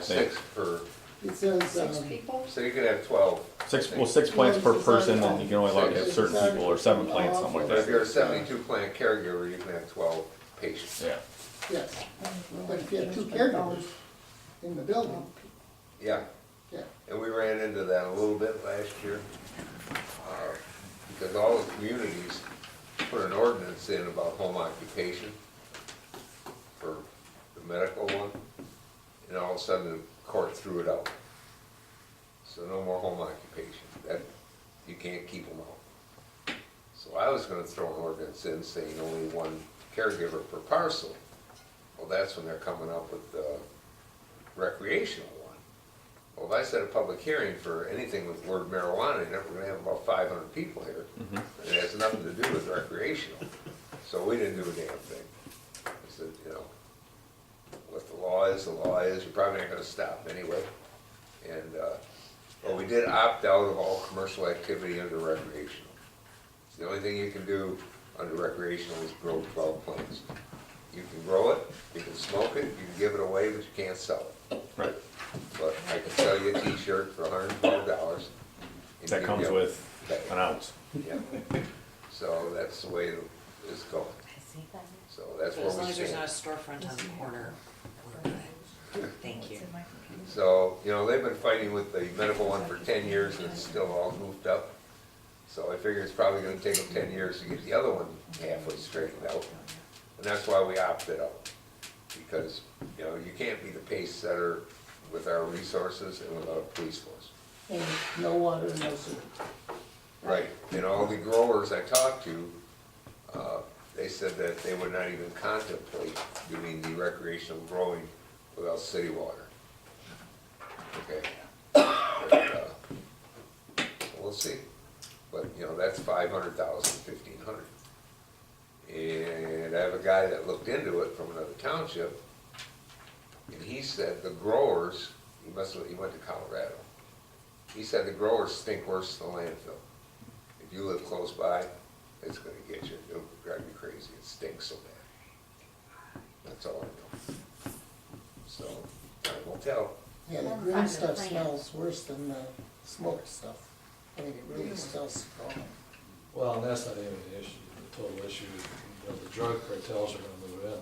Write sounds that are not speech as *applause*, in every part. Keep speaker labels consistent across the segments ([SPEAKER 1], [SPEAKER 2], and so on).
[SPEAKER 1] think.
[SPEAKER 2] six per,
[SPEAKER 3] It says,
[SPEAKER 4] Six
[SPEAKER 3] um,
[SPEAKER 4] people?
[SPEAKER 2] so you could have twelve. I
[SPEAKER 1] Six,
[SPEAKER 2] think.
[SPEAKER 1] well, six plants per person, and you can only allow to have
[SPEAKER 2] Six.
[SPEAKER 1] certain people, or seven plants, something like
[SPEAKER 2] But if
[SPEAKER 1] that.
[SPEAKER 2] you're a seventy-two plant caregiver, you can have twelve patients.
[SPEAKER 1] Yeah,
[SPEAKER 3] yes, but if you have two caregivers in the building,
[SPEAKER 2] Yeah,
[SPEAKER 3] yeah,
[SPEAKER 2] and we ran into that a little bit last year. uh, Because all the communities put an ordinance in about home occupation for the medical one, and all of a sudden the court threw it out. So no more home occupation, that, you can't keep them out. So I was gonna throw an ordinance in saying only one caregiver per parcel. Well, that's when they're coming up with the recreational one. Well, if I set a public hearing for anything with the word marijuana in it, we're gonna have about five hundred people here. And it has nothing to do with recreational. So we didn't do a damn thing. I said, you know, what the law is, the law is, you're probably not gonna stop anyway. And, uh, but we did opt out of all commercial activity under recreational. The only thing you can do under recreational is grow twelve plants. You can grow it, you can smoke it, you can give it away, but you can't sell it.
[SPEAKER 1] right.
[SPEAKER 2] But I can sell you a T-shirt for hundred and twelve dollars.
[SPEAKER 1] That comes with an ounce.
[SPEAKER 2] So that's the way it's going. So that's where
[SPEAKER 4] As long
[SPEAKER 2] we
[SPEAKER 4] as there's not a
[SPEAKER 2] stand.
[SPEAKER 4] storefront on the corner, we're good. Thank you.
[SPEAKER 2] So, you know, they've been fighting with the medical one for ten years and it's still all goofed up. So I figure it's probably gonna take them ten years to get the other one halfway straightened out. And that's why we opted out. Because, you know, you can't be the pace setter with our resources and without a police force.
[SPEAKER 3] and no water, no sewer.
[SPEAKER 2] Right, and all the growers I talked to, uh, they said that they would not even contemplate doing the recreational growing without city water. Okay. But, uh, We'll see, but, you know, that's five hundred thousand, fifteen hundred. And I have a guy that looked into it from another township, and he said the growers, he must, have- he went to Colorado. He said the growers stink worse than the landfill. If you live close by, it's gonna get you, it'll drive you crazy, it stinks so bad. That's all I know. So, I won't tell.
[SPEAKER 3] Yeah, the green stuff smells worse than the smoked stuff. I mean, it really smells strong.
[SPEAKER 5] Well, and that's not even the issue, the total issue, is, you know, the drug cartels are gonna move in.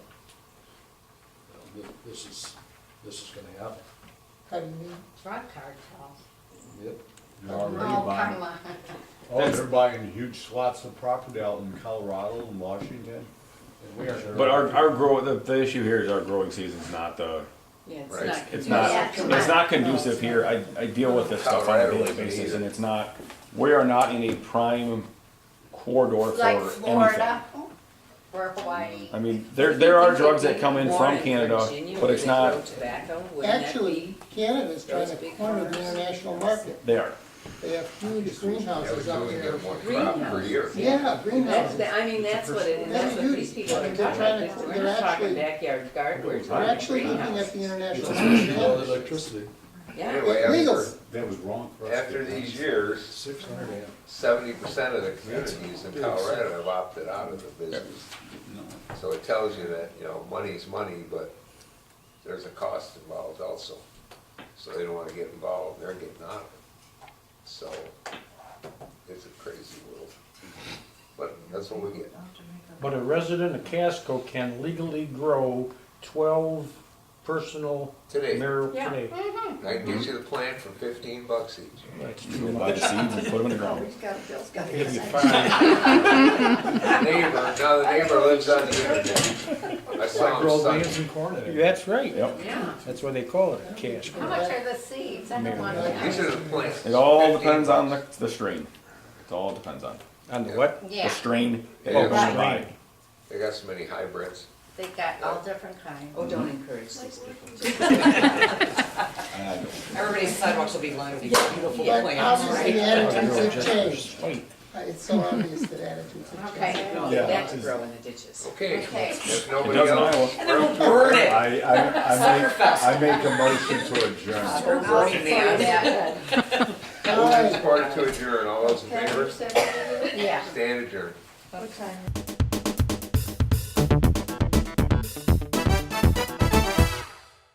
[SPEAKER 5] You know, thi- This is, this is gonna happen.
[SPEAKER 3] How do you mean?
[SPEAKER 6] Drug cartels.
[SPEAKER 5] Yep.
[SPEAKER 7] They're already
[SPEAKER 6] Oh,
[SPEAKER 7] buying,
[SPEAKER 6] come on.
[SPEAKER 7] oh, they're buying huge swaths of property out in Colorado and Washington.
[SPEAKER 5] And we are.
[SPEAKER 1] But our, our grow, the, the issue here is our growing season's not the,
[SPEAKER 4] Yeah, it's
[SPEAKER 2] Right.
[SPEAKER 4] not.
[SPEAKER 1] it's not,
[SPEAKER 6] Yeah, come
[SPEAKER 1] it's
[SPEAKER 6] on.
[SPEAKER 1] not conducive here. I, I deal with this stuff on a daily basis, and it's not, we are not in a prime corridor for
[SPEAKER 6] Like
[SPEAKER 1] anything.
[SPEAKER 6] Florida or Hawaii.
[SPEAKER 1] I mean, there, there are drugs that come in from Canada, but it's not,
[SPEAKER 4] Tobacco, wouldn't that
[SPEAKER 3] Actually,
[SPEAKER 4] be?
[SPEAKER 3] Canada's trying to
[SPEAKER 4] Those big
[SPEAKER 3] corner the
[SPEAKER 4] farms?
[SPEAKER 3] international market.
[SPEAKER 1] they are.
[SPEAKER 3] They have huge
[SPEAKER 2] That was
[SPEAKER 3] greenhouses out
[SPEAKER 2] doing
[SPEAKER 3] there.
[SPEAKER 2] it one crop per year.
[SPEAKER 3] Yeah,
[SPEAKER 8] That's,
[SPEAKER 3] greenhouses.
[SPEAKER 8] the- I mean, that's what it is, that's what these people are
[SPEAKER 3] They're
[SPEAKER 8] talking
[SPEAKER 3] trying to-
[SPEAKER 8] about, we're
[SPEAKER 3] they're
[SPEAKER 8] just
[SPEAKER 3] actually-
[SPEAKER 8] talking backyard garden, we're
[SPEAKER 3] We're
[SPEAKER 8] talking
[SPEAKER 3] actually looking
[SPEAKER 8] greenhouse.
[SPEAKER 3] at the international
[SPEAKER 5] You know, the
[SPEAKER 3] market.
[SPEAKER 5] electricity,
[SPEAKER 8] Yeah,
[SPEAKER 2] Anyway, after,
[SPEAKER 3] Illegals.
[SPEAKER 7] That was wrong for us. to
[SPEAKER 2] after
[SPEAKER 7] do.
[SPEAKER 2] these years,
[SPEAKER 5] six hundred amp.
[SPEAKER 2] seventy percent of the communities in Colorado have opted out of the business. So it tells you that, you know, money's money, but there's a cost involved also. So they don't wanna get involved, they're getting out of it. So it's a crazy world. But that's what we get.
[SPEAKER 9] But a resident of Casco can legally grow twelve personal
[SPEAKER 2] Today.
[SPEAKER 9] marijuana.
[SPEAKER 4] Yeah.
[SPEAKER 9] today.
[SPEAKER 2] I can get you the plant for fifteen bucks
[SPEAKER 1] *laughs*
[SPEAKER 2] each.
[SPEAKER 9] That's
[SPEAKER 1] You
[SPEAKER 9] too
[SPEAKER 1] buy
[SPEAKER 9] much.
[SPEAKER 1] the seeds and put them in the ground.
[SPEAKER 9] It'd be fine.
[SPEAKER 2] Neighbor, now the neighbor lives on the internet. I
[SPEAKER 5] I
[SPEAKER 2] saw him
[SPEAKER 5] grow
[SPEAKER 2] Sunday.
[SPEAKER 5] beans and corn in it.
[SPEAKER 9] That's right.
[SPEAKER 1] Yep.
[SPEAKER 4] Yeah.
[SPEAKER 9] That's why they call it a Casco.
[SPEAKER 6] how much are the seeds? I don't want to
[SPEAKER 2] These
[SPEAKER 6] know.
[SPEAKER 2] are the plants.
[SPEAKER 1] It all
[SPEAKER 2] 15
[SPEAKER 1] depends on the,
[SPEAKER 2] bucks.
[SPEAKER 1] the strain. It all depends on
[SPEAKER 9] On the what?
[SPEAKER 1] the
[SPEAKER 6] Yeah,
[SPEAKER 1] strain that
[SPEAKER 2] Yeah.
[SPEAKER 1] you're going to
[SPEAKER 9] Right.
[SPEAKER 1] buy.
[SPEAKER 2] They got so many hybrids.
[SPEAKER 6] they got all different kinds.
[SPEAKER 4] Oh, don't encourage these people.
[SPEAKER 7] I know.
[SPEAKER 4] Everybody's sidewalks will be lined with these beautiful
[SPEAKER 3] But
[SPEAKER 4] plants,
[SPEAKER 3] obviously, the
[SPEAKER 4] right?
[SPEAKER 3] attitudes have changed.
[SPEAKER 9] Wait.
[SPEAKER 3] Uh, It's so obvious that attitudes have changed.
[SPEAKER 6] Okay,
[SPEAKER 4] No,
[SPEAKER 7] Yeah.
[SPEAKER 4] that to grow in the ditches.
[SPEAKER 2] Okay,
[SPEAKER 6] Okay.
[SPEAKER 2] if
[SPEAKER 1] It
[SPEAKER 2] nobody
[SPEAKER 1] does in
[SPEAKER 2] else,
[SPEAKER 1] Iowa.
[SPEAKER 4] And then we'll burn it.
[SPEAKER 7] I, I, I make, I make a motion to adjourn.
[SPEAKER 6] I'll
[SPEAKER 4] Burning
[SPEAKER 6] say that.
[SPEAKER 2] who has part to adjourn, all those in favor,
[SPEAKER 6] Yeah.
[SPEAKER 2] stand adjourned.
[SPEAKER 6] What time?